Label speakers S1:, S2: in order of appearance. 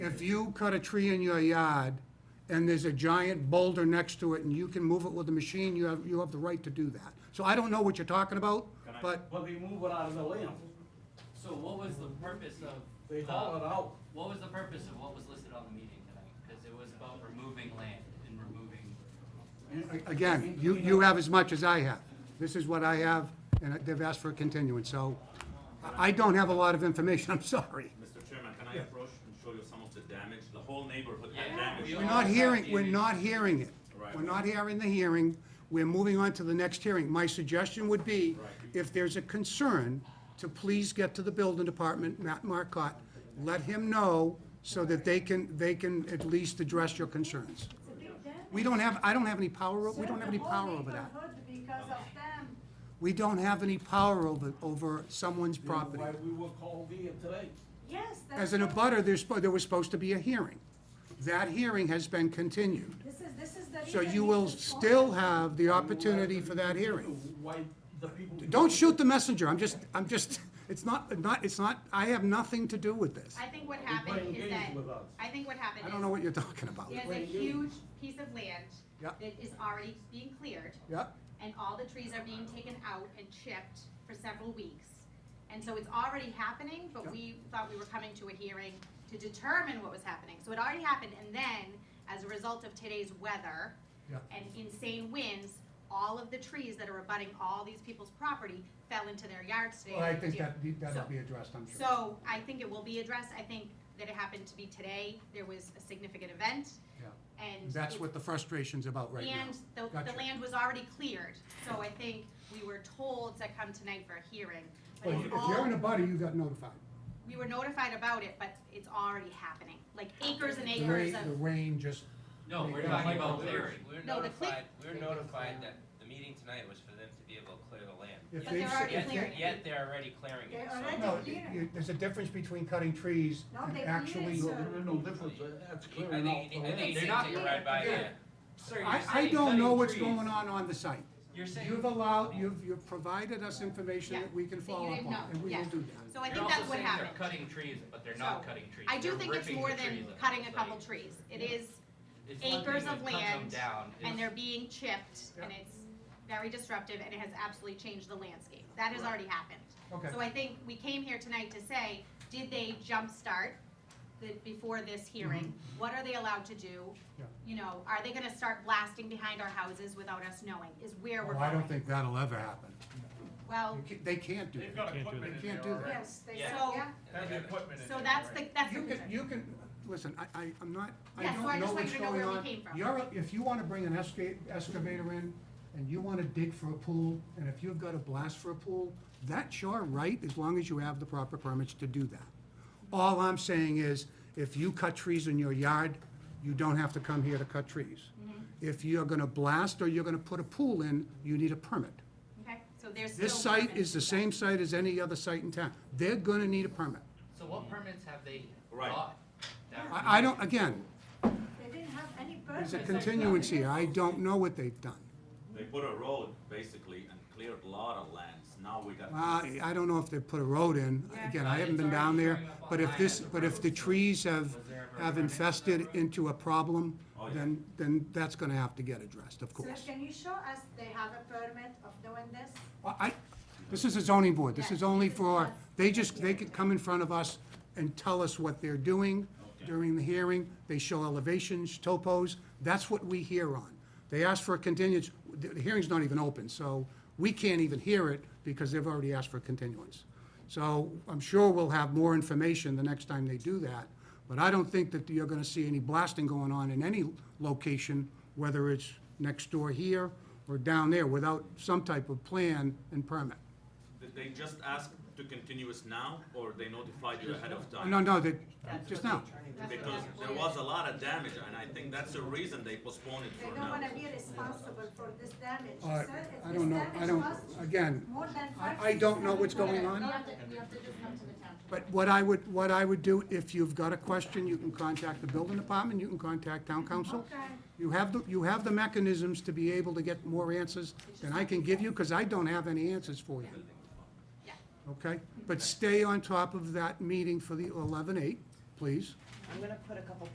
S1: If you cut a tree in your yard and there's a giant boulder next to it and you can move it with a machine, you have, you have the right to do that. So I don't know what you're talking about,
S2: Can I-
S1: but
S3: But they move it out of the land.
S4: So what was the purpose of?
S3: They
S4: the-
S3: haul it out.
S4: What was the purpose of what was listed on the meeting tonight? Because it was about removing land and removing.
S1: a- again, you, you have as much as I have. This is what I have, and they've asked for a continuance, so I I don't have a lot of information, I'm sorry.
S2: Mr. Chairman, can I approach and show you some of the damage? The whole neighborhood
S4: Yeah,
S2: had damage.
S4: we
S1: We're not hearing, we're
S4: Yeah.
S1: not hearing it.
S2: Right.
S1: We're not hearing the hearing. We're moving on to the next hearing. My suggestion would be,
S2: Right.
S1: if there's a concern, to please get to the building department, Matt Marcotte, let him know so that they can, they can at least address your concerns. We don't have, I don't have any power, o- we don't have any power over that.
S5: Because of them,
S1: We don't have any power over, over someone's property.
S3: Why we were called here today.
S5: yes, that's.
S1: As an
S5: what-
S1: abutter, there's, spo- there was supposed to be a hearing. That hearing has been continued.
S5: This is, this is the reason.
S1: So you
S5: he
S1: will
S5: was
S1: still
S5: calling.
S1: have the opportunity for that hearing.
S3: Why the people.
S1: Don't shoot the messenger, I'm just, I'm just, it's not, not, it's not, I have nothing to do with this.
S6: I think what
S3: playing
S6: happened is
S3: games
S6: that,
S3: with us.
S6: I think what happened
S1: I don't know
S6: is,
S1: what you're talking about.
S6: there's a
S3: playing
S6: huge piece of land
S1: Yeah.
S6: that is already being cleared,
S1: Yeah,
S6: and all the trees are being taken out and chipped for several weeks. And so it's already happening,
S1: Yeah.
S6: but we thought we were coming to a hearing to determine what was happening. So it already happened, and then, as a result of today's weather
S1: Yeah.
S6: and insane winds, all of the trees that are abutting all these people's property fell into their yards today.
S1: well, I
S6: and
S1: think
S6: didn't-
S1: that, that'll be addressed, I'm sure.
S6: So I think it will be addressed. I think that it happened to be today. There was a significant event
S1: Yeah.
S6: and.
S1: That's
S6: it-
S1: what the frustration's about right now.
S6: And the,
S1: Gotcha.
S6: the land was already cleared. So I think we were told to come tonight for a hearing. But it's all,
S1: butter, you got notified.
S6: we were notified about it, but it's already happening, like acres and
S1: The
S6: acres
S1: rain, the
S6: of,
S1: rain just,
S4: No, we're
S1: Yeah.
S4: talking about
S1: Micro-
S4: clearing.
S7: We're
S6: No, the cle-
S7: notified, we're
S6: They were
S7: notified
S6: clearing.
S7: that the meeting tonight was for them to be able to clear the land.
S1: If
S6: but
S1: they-
S6: they're already
S7: Yet,
S6: clearing. it.
S7: yet they're already clearing it,
S5: They're
S7: so-
S5: already-
S1: no,
S5: Yeah.
S1: you- there's a difference between cutting trees
S5: No,
S1: and
S5: they
S1: actually.
S5: did,
S3: No,
S5: sir.
S3: there's no difference, that's
S7: I
S3: clearing out
S7: think,
S3: the
S7: you need- I
S3: land.
S7: think you need to take a ride by,
S1: Yeah.
S7: yeah.
S1: I, I don't know what's going on on the site.
S7: You're saying.
S1: You've allowed, you've, you've provided us information that we can
S6: Yeah, that you
S1: follow up
S6: didn't
S1: on,
S6: know.
S1: and we will
S6: Yeah.
S1: do
S6: So
S1: that.
S6: I think that's what happened.
S4: You're also saying they're cutting trees, but they're not
S6: So,
S4: cutting trees.
S6: I do
S4: They're
S6: think it's
S4: ripping
S6: more
S4: the
S6: than
S4: trees up.
S6: cutting a
S4: It's
S6: couple
S4: like-
S6: trees. It
S4: Yeah.
S6: is,
S4: it's one thing
S6: acres
S4: to
S6: of
S4: cut them
S6: land,
S4: down.
S6: and they're
S4: It's-
S6: being chipped, and it's very disruptive, and it has absolutely changed the landscape. That has already happened.
S1: Okay.
S6: So I think we came here tonight to say, did they jumpstart the, before this hearing? What are they allowed to do?
S1: Mm-hmm. Yeah.
S6: You know, are they gonna start blasting behind our houses without us knowing, is where we're
S1: Well,
S6: going.
S1: Oh, I don't think that'll ever happen.
S6: Well,
S1: You ca- They can't do that.
S8: They've got equipment in
S1: They can't
S8: there
S1: do that.
S8: already.
S5: Yes, they,
S7: Yeah.
S5: yeah.
S8: Has
S7: Yeah.
S8: equipment in
S6: so
S8: there
S6: that's
S8: already.
S6: the, that's the
S1: You can,
S6: concern.
S1: you can, listen, I, I, I'm not, I
S6: Yeah, so I
S1: don't know
S6: just want
S1: what's
S6: you to know
S1: going
S6: where we
S1: on.
S6: came from.
S1: You're, if you wanna bring an esca- excavator in, and you wanna dig for a pool, and if you've got a blast for a pool, that's your right, as long as you have the proper permits to do that. All I'm saying is, if you cut trees in your yard, you don't have to come here to cut trees.
S6: Mm-hmm.
S1: If you're gonna blast or you're gonna put a pool in, you need a permit.
S6: Okay, so there's still.
S1: This site
S6: permits
S1: is the
S6: to do
S1: same site as any other site in town. They're gonna need a permit.
S4: So what
S6: Mm.
S4: permits have they
S2: Right.
S4: got? that would
S1: I, I
S4: be-
S1: don't, again,
S5: they didn't have any purpose.
S1: There's a continuance here, I don't know what they've done.
S2: They put a road basically and cleared a lot of lands. Now we got.
S1: Well, I Uh, I don't know if they put a road in, again, I haven't been down there, but if this, but if the trees have, have infested into a problem, then, then that's gonna have to get addressed, of
S5: So
S1: course.
S5: can you show us they have a permit of doing this?
S1: Well, I, this is a zoning board, this is only for, they just, they could come in front of us and tell us what they're doing during the hearing, they show elevations, topos, that's what we hear on. They ask for a continuance, the the hearing's not even open, so we can't even hear it because they've already asked for a continuance. So I'm sure we'll have more information the next time they do that, but I don't think that you're gonna see any blasting going on in any location, whether it's next door here or down there, without some type of plan and permit.
S2: Did they just ask to continue us now or they notified you ahead of time?
S1: No, no, that, just now.
S6: that. That's what
S2: Because
S6: happened.
S2: there was a lot of damage and I think that's the reason they postponed it
S5: They
S2: for
S5: don't
S2: now.
S5: wanna be responsible for this damage.
S1: All right,
S5: Sir, if
S1: I
S5: this
S1: don't know, I
S5: damage
S1: don't,
S5: was
S1: again,
S5: More than
S1: I-
S5: five.
S1: I don't know what's
S5: six, seven
S1: going
S5: hundred-
S1: on.
S6: We have to just come to the town.
S1: But what I would, what I would do, if you've got a question, you can contact the building department, you can contact town council.
S5: Okay.
S1: You have the, you have the mechanisms to be able to get more answers than I can give you, because I don't have any answers for you.
S6: Yeah.
S1: Okay? But stay on top of that meeting for the eleven eight, please.
S8: I'm gonna put a couple